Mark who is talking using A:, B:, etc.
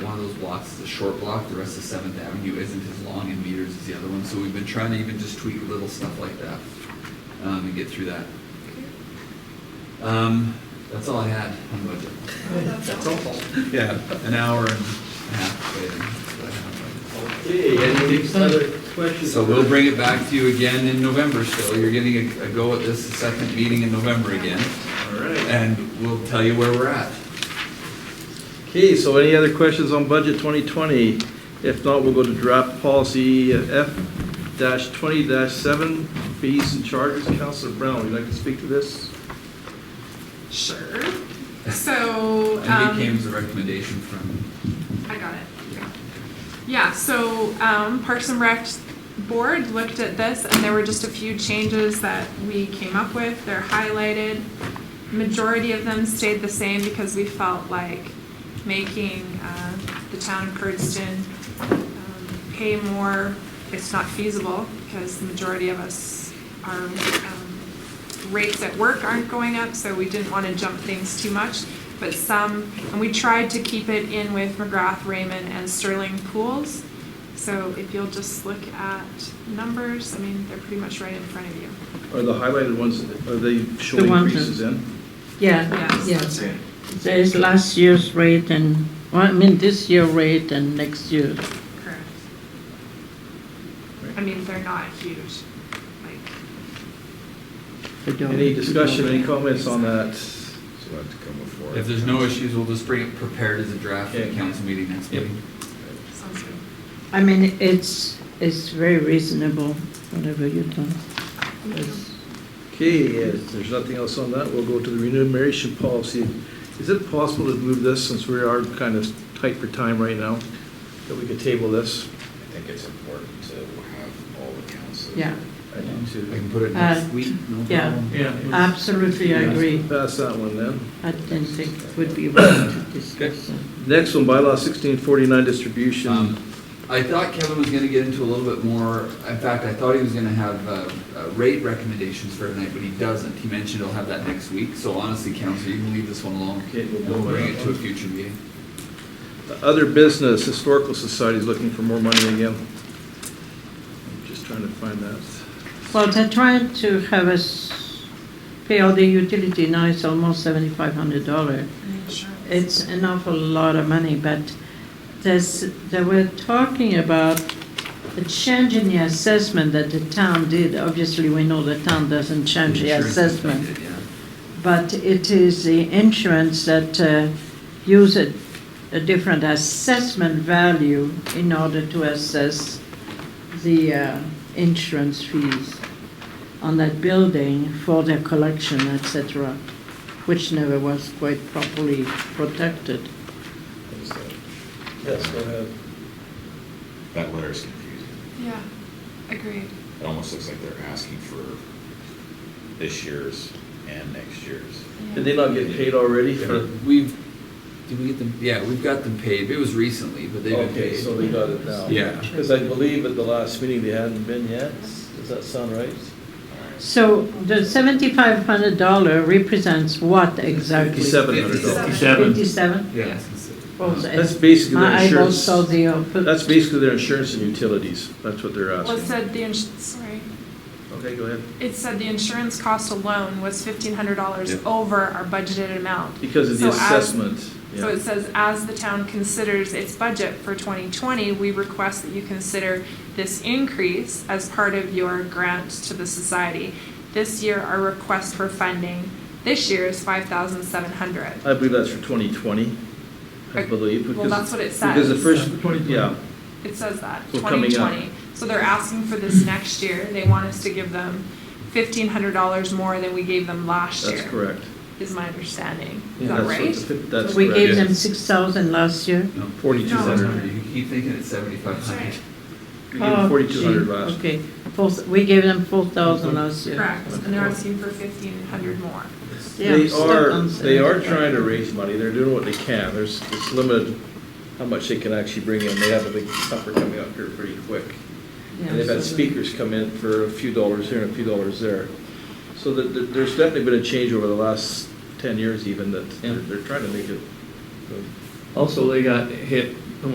A: lots, the short block, the rest of Seventh Avenue isn't as long in meters as the other one, so we've been trying to even just tweak little stuff like that, um, and get through that. Um, that's all I had on budget.
B: That's awful.
A: Yeah, an hour and a half waiting, that's what I have.
C: Okay, any other questions?
A: So we'll bring it back to you again in November still, you're getting a, a go at this, the second meeting in November again,
C: All right.
A: and we'll tell you where we're at.
C: Okay, so any other questions on budget 2020? If not, we'll go to draft policy F dash 20 dash 7, fees and charges. Counselor Brown, would you like to speak to this?
B: Sure. So,
A: And it
B: um,
A: came as a recommendation from
B: I got it. Yeah, so, um, Parks and Rec Board looked at this and there were just a few changes that we came up with. They're highlighted. Majority of them stayed the same because we felt like making, uh, the town of Curdston um, pay more, it's not feasible because the majority of us, our um, rates at work aren't going up, so we didn't want to jump things too much. But some, and we tried to keep it in with McGrath, Raymond, and Sterling Pools. So if you'll just look at numbers, I mean, they're pretty much right in front of you.
C: Are the highlighted ones, are they showing
D: ones that-
C: increases in?
D: Yeah,
B: Yes.
D: yeah. There is last year's rate and, well, I mean, this year rate and next year.
B: Correct. I mean, they're not huge, like.
D: for the-
C: Any discussion, any comments on that?
E: So we'll have to come before.
A: If there's no issues, we'll just bring it prepared as a draft for the
C: Okay.
A: council meeting next
C: Yep.
A: meeting.
B: Sounds good.
D: I mean, it's, it's very reasonable, whatever you do. It's-
C: Okay, if there's nothing else on that, we'll go to the remuneration policy. Is it possible to move this, since we are kind of tight for time right now, that we could table this?
E: I think it's important to have all the council.
D: Yeah,
C: I
A: I
C: do
A: can put it
D: Uh,
A: next week, no
D: yeah.
A: problem.
C: Yeah.
D: absolutely, I agree.
C: Pass that one then.
D: I didn't think it would be right to discuss. that.
C: Next one, bylaw sixteen forty-nine distribution.
A: Um, I thought Kevin was gonna get into a little bit more, in fact, I thought he was gonna have, uh, uh, rate recommendations for tonight, but he doesn't. He mentioned he'll have that next week, so honestly, council, you can leave this one alone.
C: Okay, we'll
A: And We'll
C: go with
A: bring
C: that
A: it to a
C: one.
A: future meeting.
C: Other business, historical society is looking for more money again. I'm Just trying to find that.
D: Well, they're trying to have us pay all the utility now, it's almost seventy-five hundred dollar. It's an awful lot of money, but there's, they were talking about a change in the assessment that the town did. Obviously, we know the town doesn't change the
A: Insurance is
D: assessment,
A: affected, yeah.
D: but it is the insurance that uh, use a, a different assessment value in order to assess the uh, insurance fees on that building for their collection, etc., which never was quite properly protected.
E: What is that?
C: Yes, go ahead.
E: That letter is confusing.
B: Yeah, agreed.
E: It almost looks like they're asking for this year's and next year's.
C: Did they not get paid already for?
A: We've, did we get them, yeah, we've got them paid, it was recently, but they've been
C: Okay, so
A: paid.
C: they got it now.
A: Yeah.
C: Because I believe at the last meeting they hadn't been yet. Does that sound right?
D: So the seventy-five hundred dollar represents what exactly?
C: Fifty-seven hundred dollars.
D: Fifty-seven?
A: Yeah. it's-
D: Oh,
A: it's-
C: That's basically their
D: My eyeballs
C: insurance.
D: saw the. uh, put-
C: That's basically their insurance and utilities. That's what they're
B: Well, it
C: asking.
B: said the ins, sorry,
C: Okay, go ahead.
B: it said the insurance cost alone was fifteen hundred dollars
A: Yeah.
B: over our budgeted amount.
C: Because of the
B: So as-
C: assessment.
B: So
C: yeah.
B: it says, as the town considers its budget for twenty twenty, we request that you consider this increase as part of your grant to the society. This year, our request for funding this year is five thousand seven hundred.
C: I believe that's for twenty twenty, I
B: Okay.
C: believe.
B: Well,
C: because-
B: that's what it
C: Because the
B: says.
C: first, yeah,
B: It says that,
C: So coming
B: twenty
C: up.
B: twenty. So they're asking for this next year. They want us to give them fifteen hundred dollars more than we gave them last year.
C: that's correct.
B: Is my understanding. Is
C: That's
B: that
C: what
B: right?
C: the fif- That's
D: We gave
C: correct.
D: them six thousand last year.
A: No,
C: Forty-two
B: No.
C: hundred.
A: You keep thinking it's seventy-five hundred.
C: We gave them
D: Oh,
C: forty-two hundred
D: gee,
C: last.
D: Okay, Four th- we gave them four thousand last year.
B: Correct. And they're asking for fifteen hundred more.
D: Yeah, I'm
C: They
D: stuck
C: are,
D: on
C: they are
D: 75.
C: trying to raise money. They're doing what they can. There's, it's limited how much they can actually bring in. They have a big supper coming up here pretty quick.
D: Yeah,
C: And they've had
D: so-
C: speakers come in for a few dollars here and a few dollars there. So that, that there's definitely been a change over the last ten years even that they're, they're trying to make it. uh,
F: Also, they got hit